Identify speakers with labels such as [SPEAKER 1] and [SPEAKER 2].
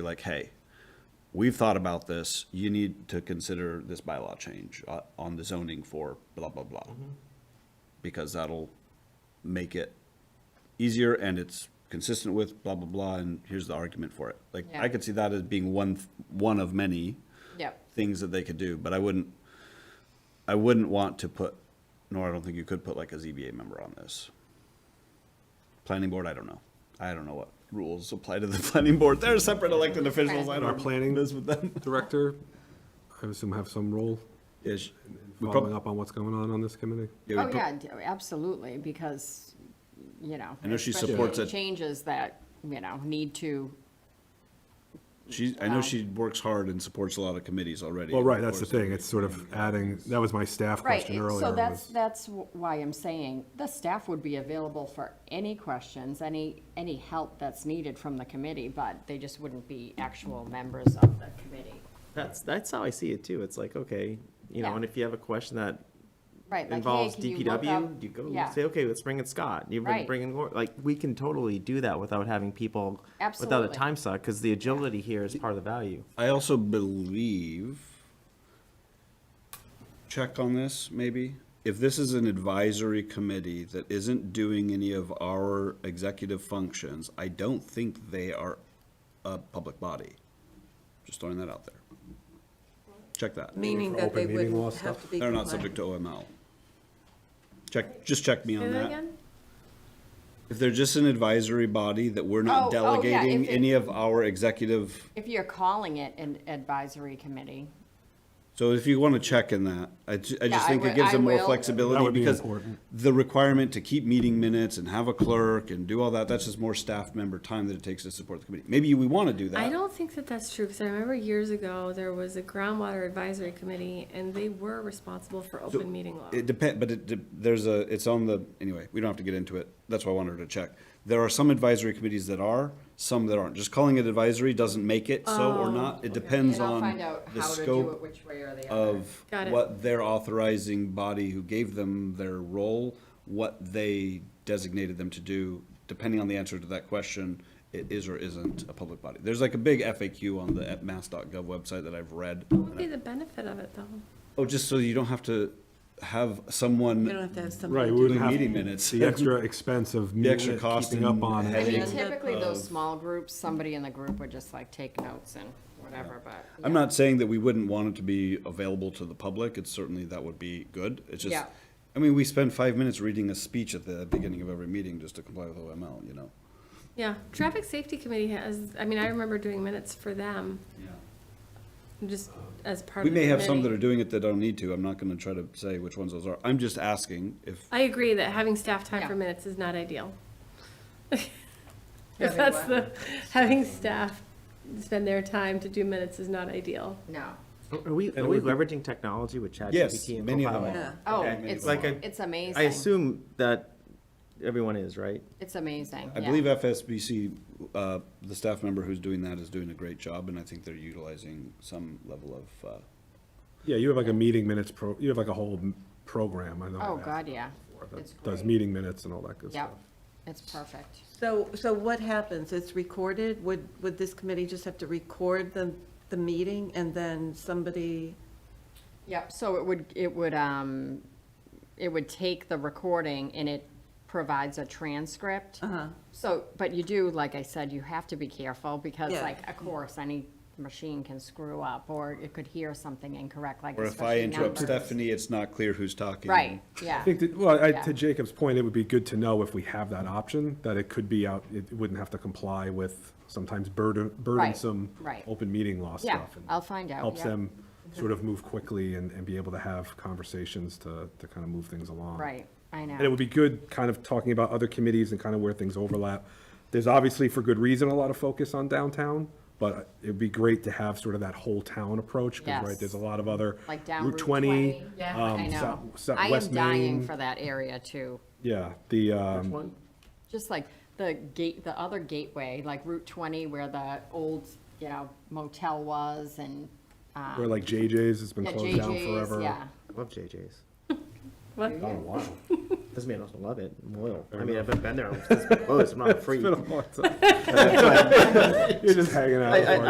[SPEAKER 1] like, hey, we've thought about this, you need to consider this bylaw change uh, on the zoning for blah, blah, blah. Because that'll make it easier and it's consistent with blah, blah, blah, and here's the argument for it. Like, I
[SPEAKER 2] Yeah.
[SPEAKER 1] could see that as being one, th- one of many
[SPEAKER 2] Yep,
[SPEAKER 1] things that they could do, but I wouldn't, I wouldn't want to put, nor I don't think you could put like a ZBA member on this. Planning board, I don't know. I don't know what rules apply to the planning board. They're separate elected officials. I
[SPEAKER 2] Our
[SPEAKER 1] don't
[SPEAKER 3] planning-
[SPEAKER 1] this with them.
[SPEAKER 3] director, I assume have some role
[SPEAKER 1] Yeah, sh- we prob-
[SPEAKER 3] following up on what's going on on this committee?
[SPEAKER 1] yeah, we
[SPEAKER 2] oh
[SPEAKER 1] prob-
[SPEAKER 2] yeah, d- absolutely, because, you know.
[SPEAKER 1] I know she
[SPEAKER 2] especially
[SPEAKER 1] supports
[SPEAKER 2] any
[SPEAKER 1] it.
[SPEAKER 2] Changes that, you know, need to,
[SPEAKER 1] She, I know she works hard and supports a lot of committees already.
[SPEAKER 3] Well, right, that's the
[SPEAKER 1] Of course.
[SPEAKER 3] thing, it's sort of adding, that was my staff
[SPEAKER 2] right,
[SPEAKER 3] question earlier.
[SPEAKER 2] so that's,
[SPEAKER 3] was-
[SPEAKER 2] that's wh- why I'm saying, the staff would be available for any questions, any, any help that's needed from the committee, but they just wouldn't be actual members of the committee.
[SPEAKER 4] That's, that's how I see it too. It's like, okay, you
[SPEAKER 2] Yeah.
[SPEAKER 4] know, and if you have a question that
[SPEAKER 2] Right, like, hey,
[SPEAKER 4] involves
[SPEAKER 2] can you look up?
[SPEAKER 4] DPW, you go
[SPEAKER 2] Yeah.
[SPEAKER 4] say, okay, let's bring in Scott. You've been
[SPEAKER 2] Right.
[SPEAKER 4] bringing, Lor- like, we can totally do that without having people, without a
[SPEAKER 2] Absolutely.
[SPEAKER 4] time suck, because the agility here is part of the value.
[SPEAKER 1] I also believe, check on this maybe, if this is an advisory committee that isn't doing any of our executive functions, I don't think they are a public body. Just throwing that out there. Check that.
[SPEAKER 5] Meaning
[SPEAKER 3] for
[SPEAKER 5] that they
[SPEAKER 3] open meeting law
[SPEAKER 5] wouldn't have
[SPEAKER 3] stuff?
[SPEAKER 5] to be.
[SPEAKER 1] They're not subject to OML. Check, just check me on that. If they're just an advisory body that we're
[SPEAKER 2] Oh,
[SPEAKER 1] not
[SPEAKER 2] oh, yeah,
[SPEAKER 1] delegating
[SPEAKER 2] if it-
[SPEAKER 1] any of our executive
[SPEAKER 2] If you're calling it an advisory committee,
[SPEAKER 1] So if you want to check in that, I, ju- I
[SPEAKER 2] Yeah,
[SPEAKER 1] just
[SPEAKER 2] I
[SPEAKER 1] think
[SPEAKER 2] wi-
[SPEAKER 1] it gives
[SPEAKER 2] I
[SPEAKER 1] them more
[SPEAKER 2] will.
[SPEAKER 3] That
[SPEAKER 1] flexibility
[SPEAKER 3] would be
[SPEAKER 1] because
[SPEAKER 3] important.
[SPEAKER 1] the requirement to keep meeting minutes and have a clerk and do all that, that's just more staff member time that it takes to support the committee. Maybe we want to do
[SPEAKER 6] I
[SPEAKER 1] that.
[SPEAKER 6] don't think that that's true, because I remember years ago, there was a groundwater advisory committee, and they were responsible for open meeting law.
[SPEAKER 1] It depend, but it, de- there's a, it's on the, anyway, we don't have to get into it. That's why I wanted her to check. There are some advisory committees that are, some that aren't. Just calling it advisory doesn't make it so or not. It depends
[SPEAKER 2] Oh, and I'll find
[SPEAKER 1] on
[SPEAKER 2] out
[SPEAKER 1] the
[SPEAKER 2] how to do it
[SPEAKER 1] scope
[SPEAKER 2] which way or the other.
[SPEAKER 1] of
[SPEAKER 6] Got it.
[SPEAKER 1] what their authorizing body who gave them their role, what they designated them to do, depending on the answer to that question, it is or isn't a public body. There's like a big FAQ on the at mass.gov website that I've read.
[SPEAKER 6] What would be the benefit of it, though?
[SPEAKER 1] Oh, just so you don't have to have
[SPEAKER 5] You don't
[SPEAKER 1] someone
[SPEAKER 5] have to have somebody.
[SPEAKER 3] Right, we
[SPEAKER 5] to-
[SPEAKER 3] wouldn't have
[SPEAKER 1] meeting minutes.
[SPEAKER 3] the extra expense of
[SPEAKER 1] The extra
[SPEAKER 3] meeting-
[SPEAKER 1] cost
[SPEAKER 3] keeping up
[SPEAKER 1] and
[SPEAKER 3] on
[SPEAKER 2] I
[SPEAKER 3] it.
[SPEAKER 5] headache.
[SPEAKER 2] mean,
[SPEAKER 5] End up
[SPEAKER 2] typically those
[SPEAKER 1] of-
[SPEAKER 2] small groups, somebody in the group would just like take notes and whatever, but.
[SPEAKER 1] I'm
[SPEAKER 2] yeah.
[SPEAKER 1] not saying that we wouldn't want it to be available to the public. It's certainly, that would be good. It's just,
[SPEAKER 2] Yeah.
[SPEAKER 1] I mean, we spend five minutes reading a speech at the beginning of every meeting just to comply with OML, you know?
[SPEAKER 6] Yeah, Traffic Safety Committee has, I mean, I remember doing minutes for them, just as part
[SPEAKER 1] We
[SPEAKER 6] of the
[SPEAKER 1] may have some that
[SPEAKER 6] committee.
[SPEAKER 1] are doing it that don't need to. I'm not gonna try to say which ones those are. I'm just asking if,
[SPEAKER 6] I agree that having staff time for
[SPEAKER 2] Yeah.
[SPEAKER 6] minutes is not ideal. If that's the, having staff spend their time to do minutes is not ideal.
[SPEAKER 2] No.
[SPEAKER 4] Are we, are we leveraging technology with
[SPEAKER 1] yes,
[SPEAKER 4] ChatGPT and
[SPEAKER 1] many of them
[SPEAKER 4] Copilot?
[SPEAKER 1] are.
[SPEAKER 5] Yeah.
[SPEAKER 2] Oh,
[SPEAKER 1] Okay. Many
[SPEAKER 2] it's,
[SPEAKER 1] of them
[SPEAKER 4] like
[SPEAKER 1] are.
[SPEAKER 4] a-
[SPEAKER 2] it's
[SPEAKER 4] I
[SPEAKER 2] amazing.
[SPEAKER 4] assume that everyone is, right?
[SPEAKER 2] It's amazing,
[SPEAKER 1] I
[SPEAKER 2] yeah.
[SPEAKER 1] believe FSBC, uh, the staff member who's doing that is doing a great job, and I think they're utilizing some level of, uh,
[SPEAKER 3] Yeah, you have like a meeting minutes pro, you have like a whole m- program, I know.
[SPEAKER 2] Oh,
[SPEAKER 3] that,
[SPEAKER 2] God, yeah.
[SPEAKER 3] that
[SPEAKER 2] It's
[SPEAKER 3] Does
[SPEAKER 2] great.
[SPEAKER 3] meeting minutes and all that good
[SPEAKER 2] Yep,
[SPEAKER 3] stuff.
[SPEAKER 2] it's perfect.
[SPEAKER 5] So, so what happens? It's recorded? Would, would this committee just have to record the, the meeting and then somebody?
[SPEAKER 2] Yep, so it would, it would, um, it would take the recording and it provides a transcript. Uh-huh. So, but you do, like I said, you have to be careful because
[SPEAKER 5] Yeah.
[SPEAKER 2] like, of course, any machine can screw up or it could hear something incorrect, like
[SPEAKER 1] or if I
[SPEAKER 2] especially
[SPEAKER 1] interrupt
[SPEAKER 2] numbers.
[SPEAKER 1] Stephanie, it's not clear who's talking.
[SPEAKER 2] Right, yeah.
[SPEAKER 3] I think that, well, I,
[SPEAKER 2] Yeah.
[SPEAKER 3] to Jacob's point, it would be good to know if we have that option, that it could be out, it wouldn't have to comply with sometimes burden, burdensome
[SPEAKER 2] right.
[SPEAKER 3] open meeting law
[SPEAKER 2] Yeah,
[SPEAKER 3] stuff. and
[SPEAKER 2] I'll find out,
[SPEAKER 3] Helps
[SPEAKER 2] yeah.
[SPEAKER 3] them sort of move quickly and, and be able to have conversations to, to kind of move things along.
[SPEAKER 2] Right, I know.
[SPEAKER 3] And it would be good, kind of talking about other committees and kind of where things overlap. There's obviously, for good reason, a lot of focus on downtown, but it'd be great to have sort of that whole town approach, because, right,
[SPEAKER 2] Yes.
[SPEAKER 3] there's a lot of other.
[SPEAKER 2] Like down
[SPEAKER 3] Route 20.
[SPEAKER 2] Yeah,
[SPEAKER 3] um,
[SPEAKER 2] I know.
[SPEAKER 3] Sou- Sou-
[SPEAKER 2] I am
[SPEAKER 3] West
[SPEAKER 2] dying
[SPEAKER 3] Main.
[SPEAKER 2] for that area too.
[SPEAKER 3] Yeah, the, um,
[SPEAKER 4] One,
[SPEAKER 2] Just like the gate, the other gateway, like Route 20 where the old, you know, motel was and, uh,
[SPEAKER 3] Where like JJ's has been
[SPEAKER 2] yeah,
[SPEAKER 3] closed down
[SPEAKER 2] JJ's,
[SPEAKER 3] forever.
[SPEAKER 2] yeah.
[SPEAKER 4] I love JJ's.
[SPEAKER 3] Oh, wow.
[SPEAKER 4] Doesn't mean I don't love it. I'm loyal. I mean, I've been there. It's been closed. I'm not a freak.
[SPEAKER 3] It's been a long time. You're just hanging out.
[SPEAKER 4] I- I-
[SPEAKER 3] for it.